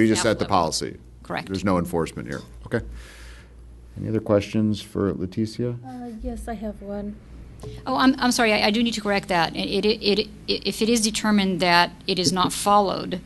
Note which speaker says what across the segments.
Speaker 1: You just
Speaker 2: Staff
Speaker 1: set the
Speaker 2: level.
Speaker 1: policy.
Speaker 2: Correct.
Speaker 1: There's no enforcement here. Okay. Any other questions for Leticia?
Speaker 3: Uh, Yes, I have one.
Speaker 2: Oh, I'm, I'm sorry, I, I do need to correct that. It, it, it, if it is determined that it is not followed,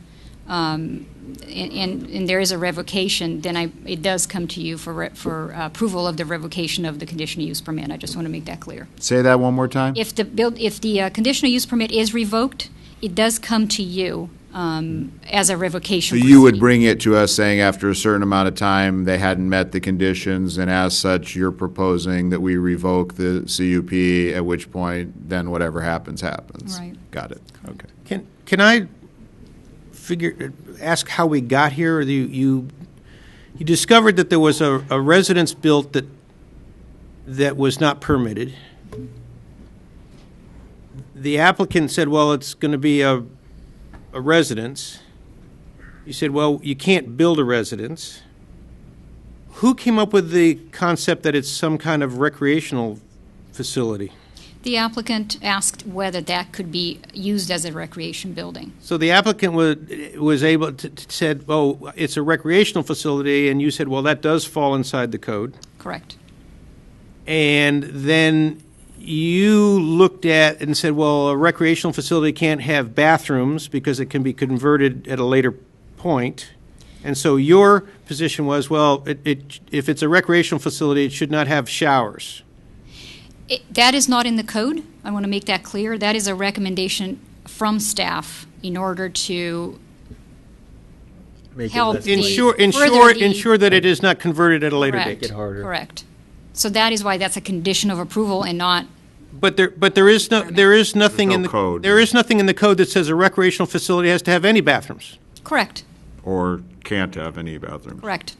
Speaker 2: um, and, and, and there is a revocation, then I, it does come to you for, re- for uh, approval of the revocation of the conditional use permit. I just want to make that clear.
Speaker 1: Say that one more time.
Speaker 2: If the build, if the uh, conditional use permit is revoked, it does come to you, um, as a
Speaker 1: So
Speaker 2: revocation.
Speaker 1: you would
Speaker 2: proceeding.
Speaker 1: bring it to us saying after a certain amount of time, they hadn't met the conditions, and as such, you're proposing that we revoke the CUP, at which point, then whatever happens, happens.
Speaker 2: Right.
Speaker 1: Got it. Okay.
Speaker 4: Can, can I figure, ask how we got here? Or You, you, you discovered that there was a, a residence built that, that was not permitted. The applicant said, well, it's going to be a, a residence. You said, well, you can't build a residence. Who came up with the concept that it's some kind of recreational facility?
Speaker 2: The applicant asked whether that could be used as a recreation building.
Speaker 4: So the applicant was, was able to, to- said, oh, it's a recreational facility, and you said, well, that does fall inside the code.
Speaker 2: Correct.
Speaker 4: And then you looked at and said, well, a recreational facility can't have bathrooms because it can be converted at a later point. And so your position was, well, it, it, if it's a recreational facility, it should not have showers.
Speaker 2: It- That is not in the code. I want to make that clear. That is a recommendation from staff in order to help the.
Speaker 4: Ensure, ensure,
Speaker 2: further the-
Speaker 4: ensure that it is not converted at a later
Speaker 2: Correct,
Speaker 4: date.
Speaker 2: Correct. So that is why that's a condition of approval and not,
Speaker 4: But there, but there is no, there is
Speaker 1: There's
Speaker 4: nothing
Speaker 1: no
Speaker 4: in the.
Speaker 1: code.
Speaker 4: There is nothing in the code that says a recreational facility has to have any bathrooms.
Speaker 2: correct,
Speaker 1: Or can't have any bathrooms.
Speaker 2: correct.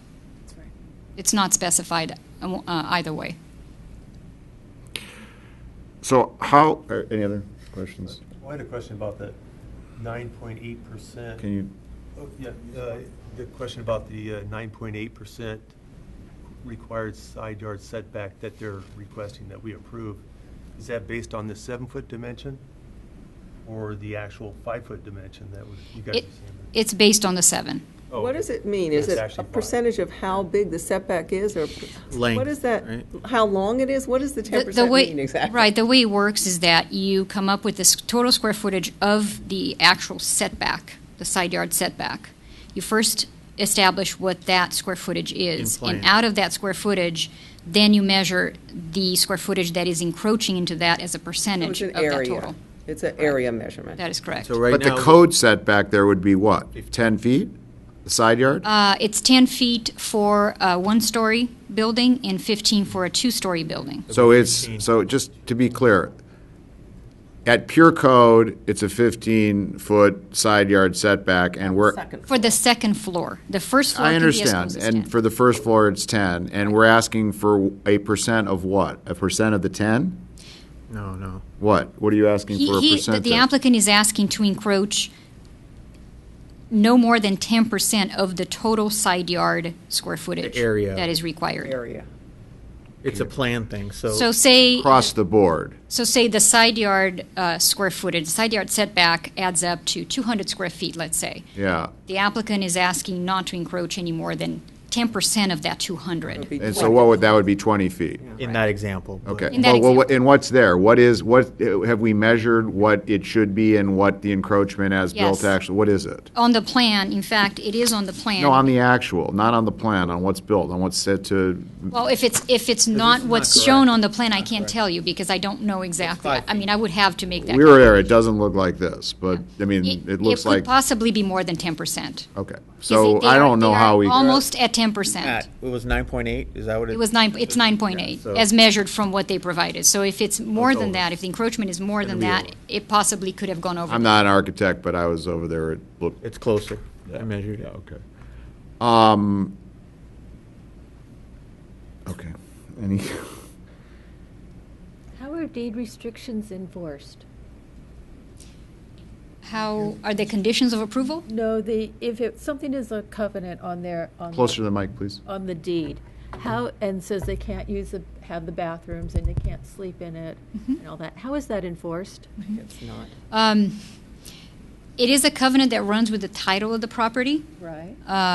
Speaker 2: It's not specified uh, either way.
Speaker 1: So how, or any other questions?
Speaker 5: I had a question about the nine point eight percent.
Speaker 1: Can you,
Speaker 5: Yeah, uh, the question about the uh, nine point eight percent required side yard setback that they're requesting that we approve. Is that based on the seven-foot dimension or the actual five-foot dimension that would- you guys are
Speaker 2: It,
Speaker 5: saying?
Speaker 2: it's based on the seven.
Speaker 5: Oh,
Speaker 6: What does it mean? Is
Speaker 5: It's
Speaker 6: it a
Speaker 5: actually five.
Speaker 6: percentage of how big the setback is, or? What is that, how long it is? What does the
Speaker 2: The-
Speaker 6: ten
Speaker 2: the
Speaker 6: percent
Speaker 2: way-
Speaker 6: mean exactly?
Speaker 2: Right, the way it works is that you come up with this total square footage of the actual setback, the side yard setback. You first establish what that square footage is. And out of that square footage, then you measure the square footage that is encroaching into that as a
Speaker 6: So It's
Speaker 2: percentage of
Speaker 6: an
Speaker 2: that
Speaker 6: area.
Speaker 2: total.
Speaker 6: It's an area measurement.
Speaker 2: That is correct.
Speaker 1: but the code setback there would be what? 10 feet? The Side yard?
Speaker 2: Uh, It's 10 feet for a one-story building and 15 for a two-story building.
Speaker 1: So it's, so just to be clear, at pure code, it's a 15-foot side yard setback, and we're,
Speaker 6: Second.
Speaker 2: For the second floor. The first floor
Speaker 1: I
Speaker 2: can be as close
Speaker 1: understand,
Speaker 2: as 10.
Speaker 1: and for the first floor, it's 10, and we're asking for a percent of what? A percent of the 10?
Speaker 7: No, no.
Speaker 1: What? What are you asking for a
Speaker 2: He, he, the-
Speaker 1: percent?
Speaker 2: the applicant is asking to encroach no more than ten percent of the total side yard square footage.
Speaker 7: area.
Speaker 2: That is required.
Speaker 6: Area.
Speaker 7: It's a plan thing, so.
Speaker 2: So say,
Speaker 1: Across the board.
Speaker 2: so say the side yard, uh, square footage, side yard setback adds up to two hundred square feet, let's say.
Speaker 1: Yeah.
Speaker 2: The applicant is asking not to encroach any more than ten percent of that two hundred.
Speaker 1: And so what would, that would be 20 feet?
Speaker 7: In that example. but-
Speaker 1: Okay.
Speaker 2: In that
Speaker 1: Well, well, what- And what's there? What is, what, have we measured what it should be and what the encroachment as built
Speaker 2: Yes.
Speaker 1: actually, what is it?
Speaker 2: On the plan, in fact, it is on the plan.
Speaker 1: No, on the actual, not on the plan, on what's built, on what's set to,
Speaker 2: Well, if it's, if it's not what's shown on the plan, I can't tell you because I don't know exactly. I I mean, I would have to make that.
Speaker 1: we were there, it doesn't look like this, but, I mean,
Speaker 2: It-
Speaker 1: it looks like,
Speaker 2: could possibly be more than ten percent.
Speaker 1: okay. So I don't know how we,
Speaker 2: Almost at ten
Speaker 7: At-
Speaker 2: percent.
Speaker 7: It was 9.8, is that what it?
Speaker 2: It was nine, it's nine point eight,
Speaker 7: so-
Speaker 2: as measured from what they provided. So if it's more than
Speaker 7: over.
Speaker 2: that, if the encroachment is more than that, it possibly could have gone over.
Speaker 1: I'm not an architect, but I was over there, it looked,
Speaker 7: It's closer. I measured it. Okay.
Speaker 1: um, okay. Any,
Speaker 3: How are deed restrictions enforced?
Speaker 2: How, are there conditions of approval?
Speaker 3: No, the, if it, something is a covenant on their, on. the-
Speaker 1: closer to the mic, please.
Speaker 3: On the deed, how, and says they can't use the, have the bathrooms and they can't Mm-hmm. sleep in it and all that. How is that enforced?
Speaker 2: Um, It is a covenant that runs with the title of the property.
Speaker 3: right?